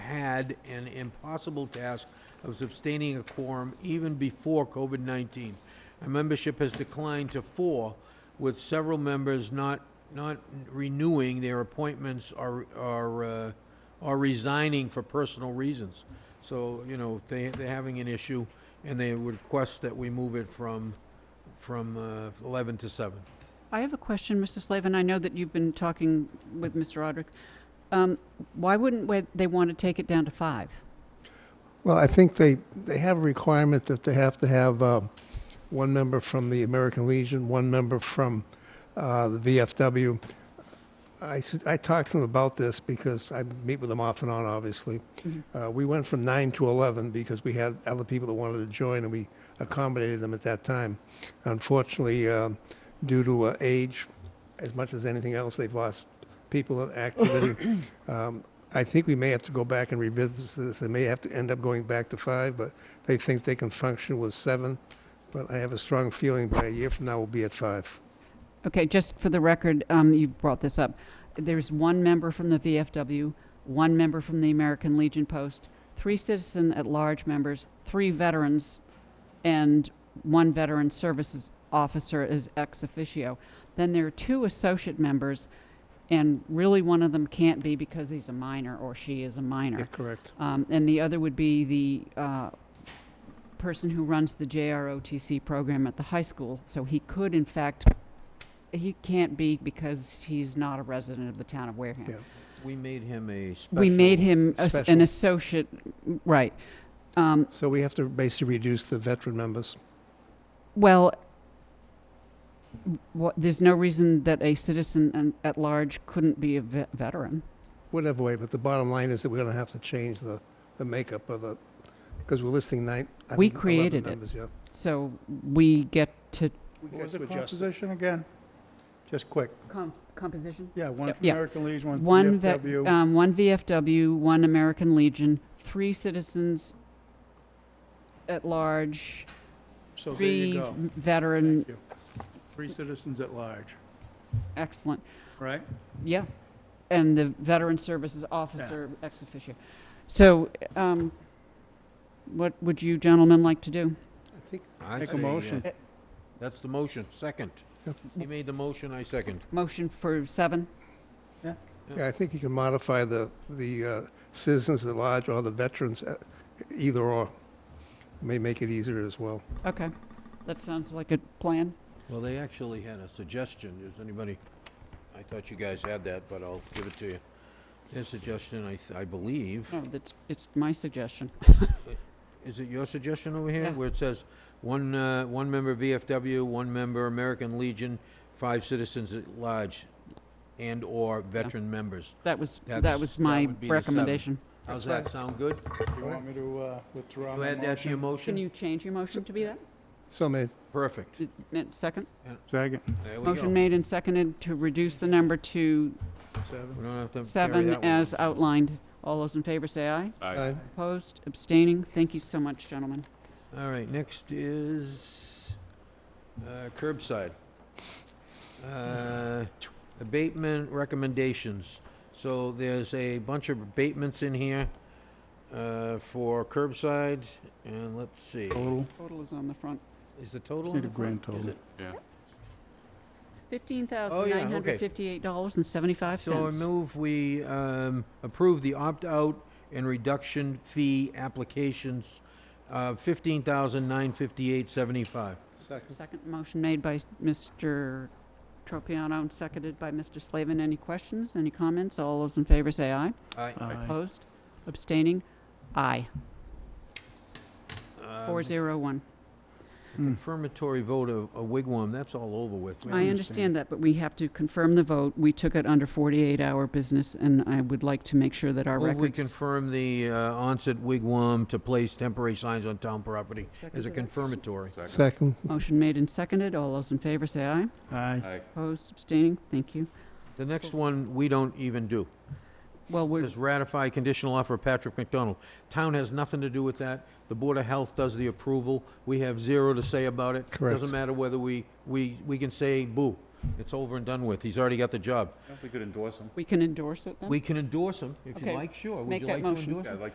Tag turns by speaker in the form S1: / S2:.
S1: had an impossible task of sustaining a quorum even before COVID-19. Our membership has declined to four, with several members not, not renewing their appointments or, or, uh, or resigning for personal reasons. So, you know, they, they're having an issue, and they would request that we move it from, from uh, 11 to 7.
S2: I have a question, Mr. Slavin. I know that you've been talking with Mr. Roderick. Um, Why wouldn't wa- they want to take it down to five?
S3: Well, I think they, they have a requirement that they have to have uh, one member from the American Legion, one member from uh, the VFW. I, s- I talked to them about this because I meet with them off and on, obviously.
S2: Mhm.
S3: Uh, We went from nine to 11 because we had other people that wanted to join, and we accommodated them at that time. Unfortunately, um, due to uh, age, as much as anything else, they've lost people in activity. Um, I think we may have to go back and revisit this. They may have to end up going back to five, but they think they can function with seven. But I have a strong feeling by a year from now, we'll be at five.
S2: Okay, just for the record, um, you brought this up. There's one member from the VFW, one member from the American Legion Post, three citizen at large members, three veterans, and one veteran services officer is ex officio. Then there are two associate members, and really one of them can't be because he's a minor or she is a minor.
S3: Yeah, correct.
S2: Um, and the other would be the uh, person who runs the JROTC program at the high school. So he could, in fact, he can't be because he's not a resident of the town of Wareham.
S3: Yeah.
S1: We made him a special.
S2: We made him as- an
S3: Special.
S2: associate, right. Um,
S3: So we have to basically reduce the veteran members.
S2: well, wha- there's no reason that a citizen an- at large couldn't be a ve- veteran.
S3: Whatever way, but the bottom line is that we're gonna have to change the, the makeup of the, because we're listing nine. I
S2: We
S3: think, 11
S2: created it.
S3: members, yeah.
S2: So we get to
S3: We
S4: What was
S3: got
S4: the
S3: to adjust it.
S4: composition again? Just quick.
S2: com- composition.
S4: Yeah, one from
S2: Yeah.
S4: American Legion, one
S2: One,
S4: from
S2: ve-
S4: VFW.
S2: um, one VFW, one American Legion, three citizens at large,
S4: So there
S2: three
S4: you go.
S2: v- veteran,
S4: Thank you. Three citizens at large,
S2: excellent,
S4: right?
S2: yeah. And the veteran services officer ex officio. So, um, what would you gentlemen like to do?
S3: I think,
S1: I
S4: Make a
S1: say, uh,
S4: motion.
S2: Eh.
S1: That's the motion, second.
S3: Yep.
S1: He made the motion, I second.
S2: Motion for seven?
S3: yeah, I think you can modify the, the uh, citizens at large or the veterans, uh, either or. May make it easier as well.
S2: Okay, that sounds like a plan.
S1: Well, they actually had a suggestion, is anybody, I thought you guys had that, but I'll give it to you. Their suggestion, I, th- I believe,
S2: No, that's, it's my suggestion.
S1: is it your suggestion over here?
S2: Yeah.
S1: Where it says, one, uh, one member VFW, one member American Legion, five citizens at large, and/or veteran members.
S2: That was, that
S1: That's-
S2: was
S1: that
S2: my
S1: would be the seven.
S2: recommendation.
S1: How's
S3: That's
S1: that sound good?
S4: Do you want me to uh, withdraw
S1: You
S4: my
S1: add that to your
S2: Can
S4: motion?
S1: motion?
S2: you change your motion to be that?
S3: So may,
S1: Perfect.
S2: Uh, Second?
S4: Second,
S1: There we
S2: Motion
S1: go.
S2: made and seconded to reduce the number to
S4: seven.
S1: We don't have to carry
S2: seven
S1: that one.
S2: as outlined. All those in favor say aye.
S3: I,
S2: Opposed, abstaining. Thank you so much, gentlemen.
S1: All right, next is uh, curbside. Uh, Abatement recommendations. So there's a bunch of abatements in here uh, for curbside, and let's see,
S4: Total,
S2: Total is on the front.
S1: is the total?
S4: need
S1: in
S4: a
S1: the
S4: grand
S1: front? Is
S4: total.
S1: it?
S2: Fifteen thousand nine hundred fifty-eight dollars and seventy-five
S1: So I
S2: cents.
S1: move we um, approve the opt-out and reduction fee applications, fifteen thousand nine fifty-eight seventy-five.
S3: second,
S2: Second motion made by Mr. Tropiano and seconded by Mr. Slavin. Any questions, any comments? All those in favor say aye.
S1: Aye.
S4: Aye.
S2: Opposed, abstaining, aye. Four
S1: Um,
S2: zero one.
S4: Mm.
S1: confirmatory vote of a wigwam, that's all over with. We
S2: I
S4: Hmm.
S1: don't-
S2: understand that, but we have to confirm the vote. We took it under forty-eight hour business, and I would like to make sure that our
S1: Move we
S2: records.
S1: confirm the uh, onset wigwam to place temporary signs on town property as a confirmatory.
S3: second,
S2: Motion made and seconded. All those in favor say aye.
S4: Aye.
S2: Opposed, abstaining, thank you.
S1: The next one, we don't even do.
S2: Well, we're,
S1: Is ratify conditional offer of Patrick McDonald. Town has nothing to do with that. The Board of Health does the approval. We have zero to say about it.
S3: Correct.
S1: Doesn't matter whether we, we, we can say boo. It's over and done with. He's already got the job.
S5: We could endorse them.
S2: we can endorse it then?
S1: We can endorse him if you
S2: Okay.
S1: like, sure. Would
S2: Make
S1: you
S2: that
S1: like to
S2: motion.
S1: endorse him?
S5: Yeah, I'd like